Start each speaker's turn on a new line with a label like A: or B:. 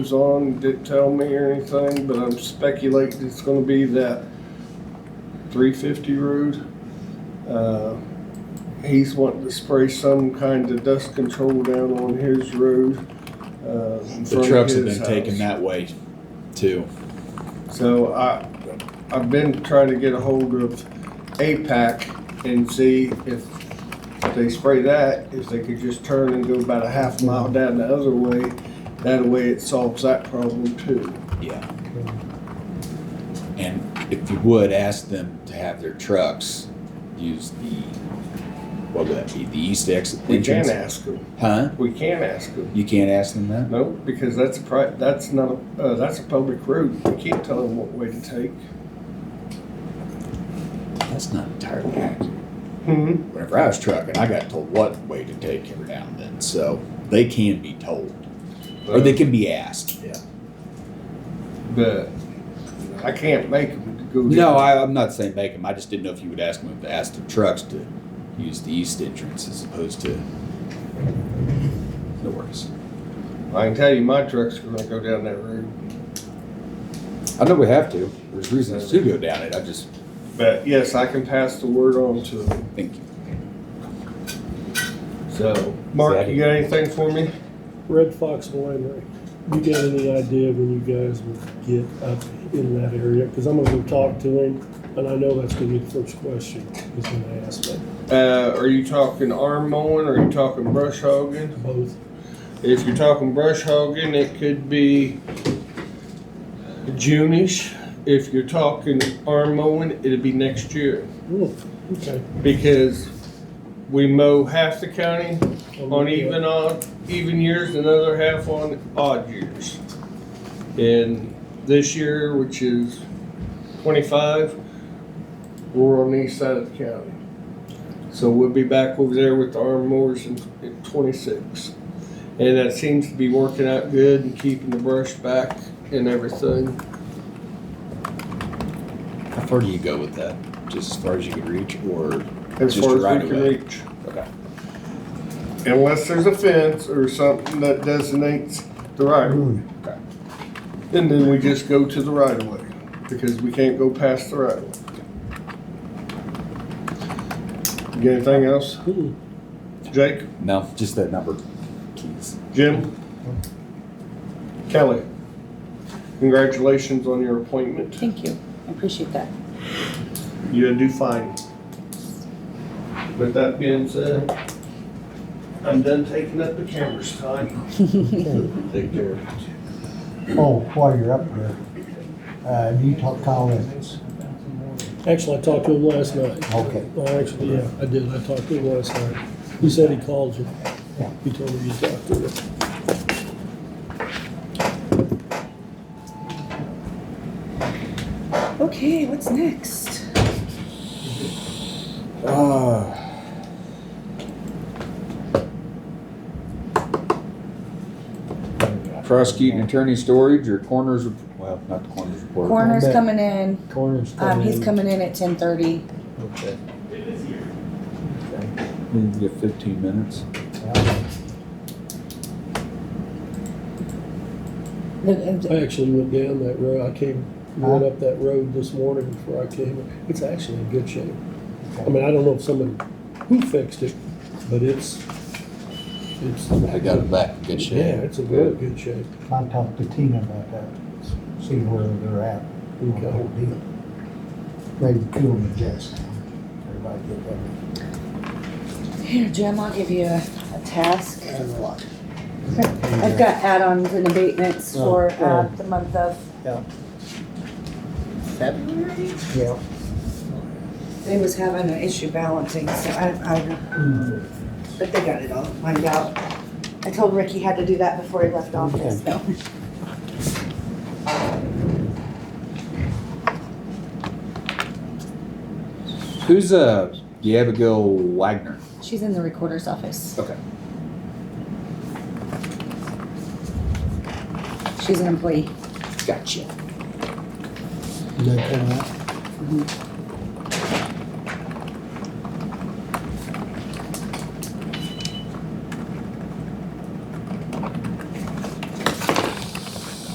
A: was on, didn't tell me or anything, but I'm speculating it's gonna be that three fifty road. Uh, He's wanting to spray some kind of dust control down on his road. uh, in front
B: The
A: of
B: trucks have
A: his
B: been taken
A: house.
B: that way too.
A: So I, I've been trying to get a hold of APAC and see if they spray that, if they could just turn and go about a half mile down the other way. That way it solves that problem too.
B: Yeah. And if you would, ask them to have their trucks use the, what would that be, the east exit
A: We can
B: entrance?
A: ask them,
B: Huh?
A: we can ask them.
B: You can't ask them that?
A: No, because that's a pri, that's not, a uh, that's a public road. We can't tell them what way to take.
B: That's not entirely accurate.
A: Hmm,
B: Whenever I was trucking, I got told what way to take every now and then, so they can be told, or they can be asked. Yeah.
A: but I can't make them to go.
B: No,
A: down.
B: I, I'm not saying make them, I just didn't know if you would ask them, to ask the trucks to use the east entrance as opposed to. No worries.
A: I can tell you my trucks are gonna go down that road.
B: I know we have to. There's reasons to go down it. I just
A: But yes, I can pass the word on to them.
B: think
A: So, Mark, you got anything for me?
C: Red Fox Winery. You got any idea when you guys will get up in that area? Because I'm gonna go talk to him, and I know that's gonna be the first question he's gonna ask, but
A: Uh, are you talking arm mowing or are you talking brush hogging?
C: both.
A: If you're talking brush hogging, it could be June-ish. If you're talking arm mowing, it'd be next year
C: Oh, okay.
A: because we mow half the county on even odd, even years, another half on odd years. And this year, which is twenty-five, we're on the east side of the county. So we'll be back over there with the arm mowers in, in twenty-six. And that seems to be working out good and keeping the brush back and everything.
B: how far do you go with that? Just as far as you can reach, or
A: As
B: Just
A: far as
B: right
A: we can
B: away.
A: reach.
B: Okay.
A: Unless there's a fence or something that designates the right of way.
B: Okay.
A: And then we just go to the right of way, because we can't go past the right of way. You got anything else?
C: Mm.
A: Jake,
B: no? Just that number, please.
A: Jim? Kelly? Congratulations on your appointment.
D: Thank you, I appreciate that.
A: You'll do fine. With that being said, I'm done taking up the camera's time. Take care.
E: Oh, while you're up there, uh, do you talk to Kyle Evans?
C: Actually, I talked to him last night.
E: Okay.
C: Well, actually, yeah, I did. I talked to him last night. He said he called you.
E: Yeah.
C: He told me you talked to him.
D: Okay, what's next?
B: Uh, prosecuting attorney storage or coroner's rep- well, not the coroner's report.
D: Coroner's
E: bet.
D: coming in,
E: Corners.
D: um, he's coming in at ten thirty.
E: Okay.
B: You get 15 minutes.
C: I actually went down that road. I came, went up that road this morning before I came. It's actually in good shape. I mean, I don't know if somebody, who fixed it, but it's, it's.
B: I got it back in good shape.
C: Yeah, it's in really good shape.
E: I talked to Tina about that, see where they're at. on the whole deal. Ready to kill them just now. Everybody get that.
D: Here, Jim, I'll give you a, a task.
E: That's a lot.
D: I've got add-ons and abatements
E: Oh,
D: for, uh,
E: oh.
D: the month of,
E: February? Yeah.
D: they was having an issue balancing, so I, I,
E: Mm,
D: but they got it all lined out. I told Rick he had to do that before he left office, so.
B: Who's uh the Abigail Wagner?
D: She's in the recorder's office.
B: Okay.
D: She's an employee.
B: Gotcha.
E: Is that coming up?